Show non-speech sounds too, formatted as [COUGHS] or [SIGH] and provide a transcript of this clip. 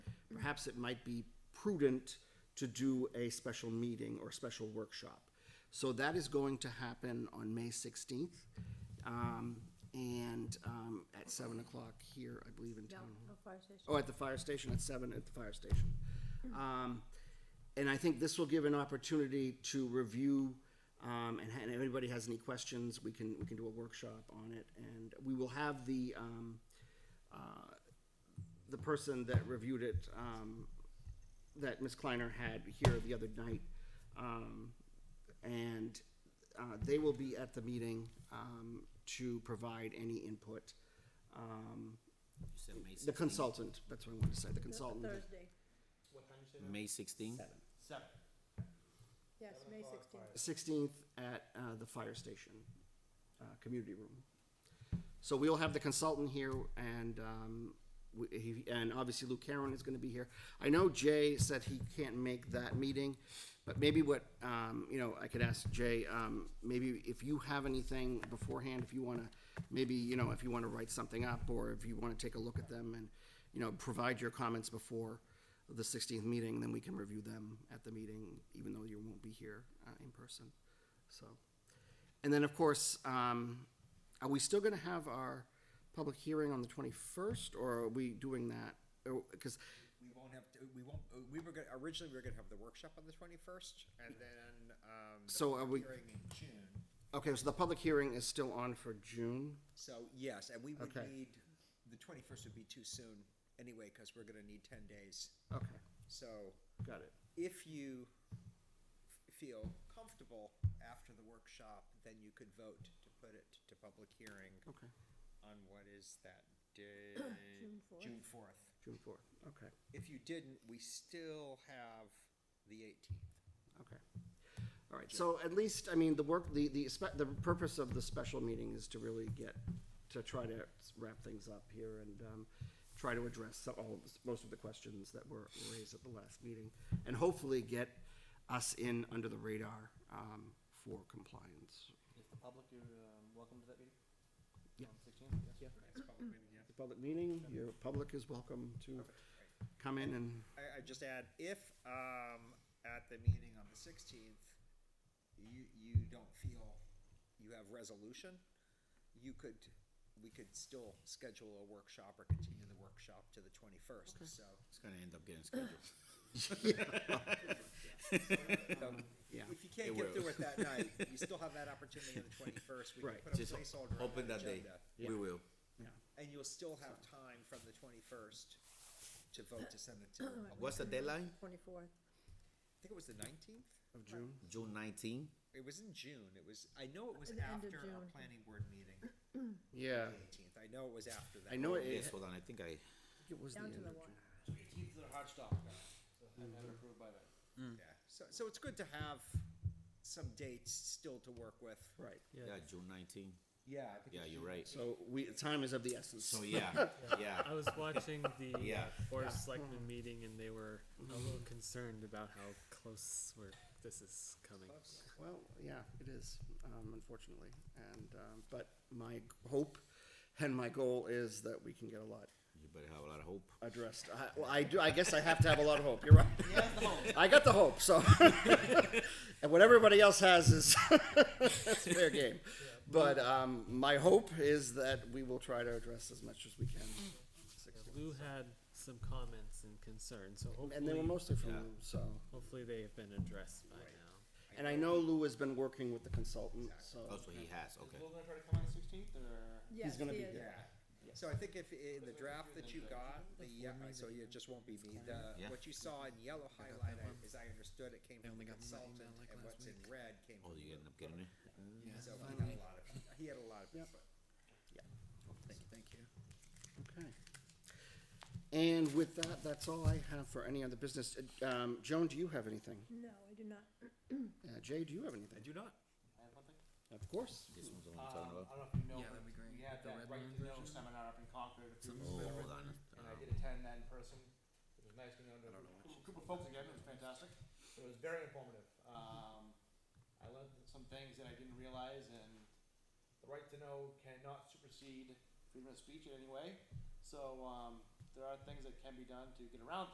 perhaps it might be prudent to do a special meeting or special workshop. So that is going to happen on May sixteenth, um, and, um, at seven o'clock here, I believe in town. hall. Oh, at the fire station, at seven at the fire station. Um, and I think this will give an opportunity to review, um, and, ha- and if anybody has any questions, we can, we can do a workshop on it. And we will have the, um, uh, the person that reviewed it, um, that Ms. Kleiner had here the other night. Um, and, uh, they will be at the meeting, um, to provide any input. Um, You said May the 16th. consultant, that's what I wanted to say, the consultant. Thursday, What time you say now? May 16th. Seven. yes, Seven May o'clock, sixteenth. fire. Sixteenth at, uh, the fire station, uh, community room. So we'll have the consultant here and, um, we, he, and obviously Lou Caron is gonna be here. I know Jay said he can't make that meeting, but maybe what, um, you know, I could ask Jay, um, maybe if you have anything beforehand, if you wanna, maybe, you know, if you wanna write something up or if you wanna take a look at them and, you know, provide your comments before the sixteenth meeting, then we can review them at the meeting, even though you won't be here, uh, in person, so. And then, of course, um, are we still gonna have our public hearing on the twenty-first, or are we doing that? Or, cause, We won't have, to we won't, uh, we were gonna, originally we were gonna have the workshop on the twenty-first, and Mm-hmm. then, um. the So are we- Hearing in June, okay, so the public hearing is still on for June, so, yes, and we would Okay. need, the twenty-first would be too soon anyway, cause we're gonna need ten days. okay, So, got it, if you f- feel comfortable after the workshop, then you could vote to put it to public hearing okay, on what is that day? [COUGHS] June fourth. June fourth. June fourth, okay, If you didn't, we still have the eighteenth. okay. All right, so at least, I mean, the work, the, the, spe- the purpose of the special meeting is to really get, to try to wrap things up here and, um, try to address some- all, of the- most of the questions that were raised at the last meeting, and hopefully get us in under the radar, um, for compliance. Is the public, you're, um, welcome to that meeting? Yeah. On sixteenth, yes? Yeah. It's public meeting, yeah. It's a Public meeting, your public is welcome to come in and, I, I just add, if, um, at the meeting on the sixteenth, you, you don't feel you have resolution, you could, we could still schedule a workshop or continue the workshop to the [LAUGHS] twenty-first, so. It's gonna end up getting scheduled. yeah, If you It can't get will. through it that night, [LAUGHS] you still have that opportunity on the twenty-first, we can Right. put a Just placeholder on open that that day. agenda. We will. yeah. And you'll still have time from the twenty-first to vote to send it to the public. What's the deadline? Twenty-fourth, I think it was the nineteenth? Of June, June 19th. It was in June, it was, I know it was At the end of after June. our planning board meeting. [CLEARS THROAT] yeah, the 18th. I know it was after that. I Oh, know it, Yes, it hold on. I think I. was the down end of to the June. one. Eighteenth is a hard stop, guys, so I'm not approved by that. Yeah. So, so it's good to have some dates still to work with. Right, Yeah, June 19th. Yeah, I think Yeah, you're right. so we, time is of the essence. [LAUGHS] So yeah, yeah. I was watching the Yeah. Board of Selectmen meeting and they were a Mm-hmm. little concerned about how close we're, this is coming. Well, yeah, it is, um, unfortunately, and, um, but my g- hope and my goal is that we can get a lot You better have a lot of hope. addressed. I, well, I do, I guess I have to have a lot of hope, you're right. [LAUGHS] I got the hope, so. And what everybody else has is, [LAUGHS] it's fair game. But, um, my hope is that we will try to address as much as we can. Six- Lou had some comments and concerns, so And they were hopefully, mostly from Yeah. Lou, so. hopefully they have been addressed by now. And I know Lou has been working with the consultant, so. Oh, so he has. Okay. Is Will gonna try to come on the sixteenth, or? Yes, gonna be he is. Yeah. So I think if in the draft that you got, the ye- so it just won't be me. The Yeah. what you saw in yellow highlighted, as I understood it, came from the consultant, and what's in red came Oh, from. you end up getting it. Lou. So he had a lot of he had a lot of Yep. input. Thank you. Okay. And with that, that's all I have for any other business. Uh, Um, Joan, do you have anything? No, I do not. Uh, Jay, do you have anything? do not. I have one thing. Of course. This one's the one I'm Um, I talking don't about. know if you know, Yeah, that'd be great. but we had The that red right moon to know version? seminar up in Concord a few Something with weeks Oh, the ago, red hold on. and I did attend that in person. It was nice getting under a group- group of folks again, it was fantastic. It was very informative. Um, I learned some things that I didn't realize, and the right to know cannot supersede freedom of speech in any way. So, um, there are things that can be done to get around